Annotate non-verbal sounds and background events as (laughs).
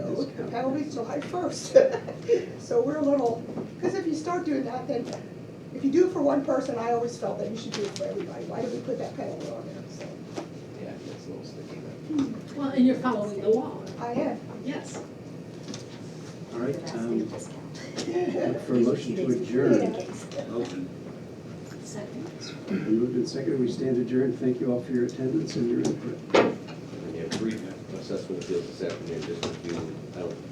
that'll be July first. (laughs) So we're a little, because if you start doing that, then, if you do it for one person, I always felt that you should do it for everybody. Why did we put that penalty on there? So, Yeah, it's a little sticky, Well, and you're following the law, I am. (laughs) yes. All right, um, look for a motion to adjourn. Open. Second. Moved and seconded, we stand adjourned. Thank you all for your attendance and your input. but, and you have three, assessment fields this afternoon, just reviewing the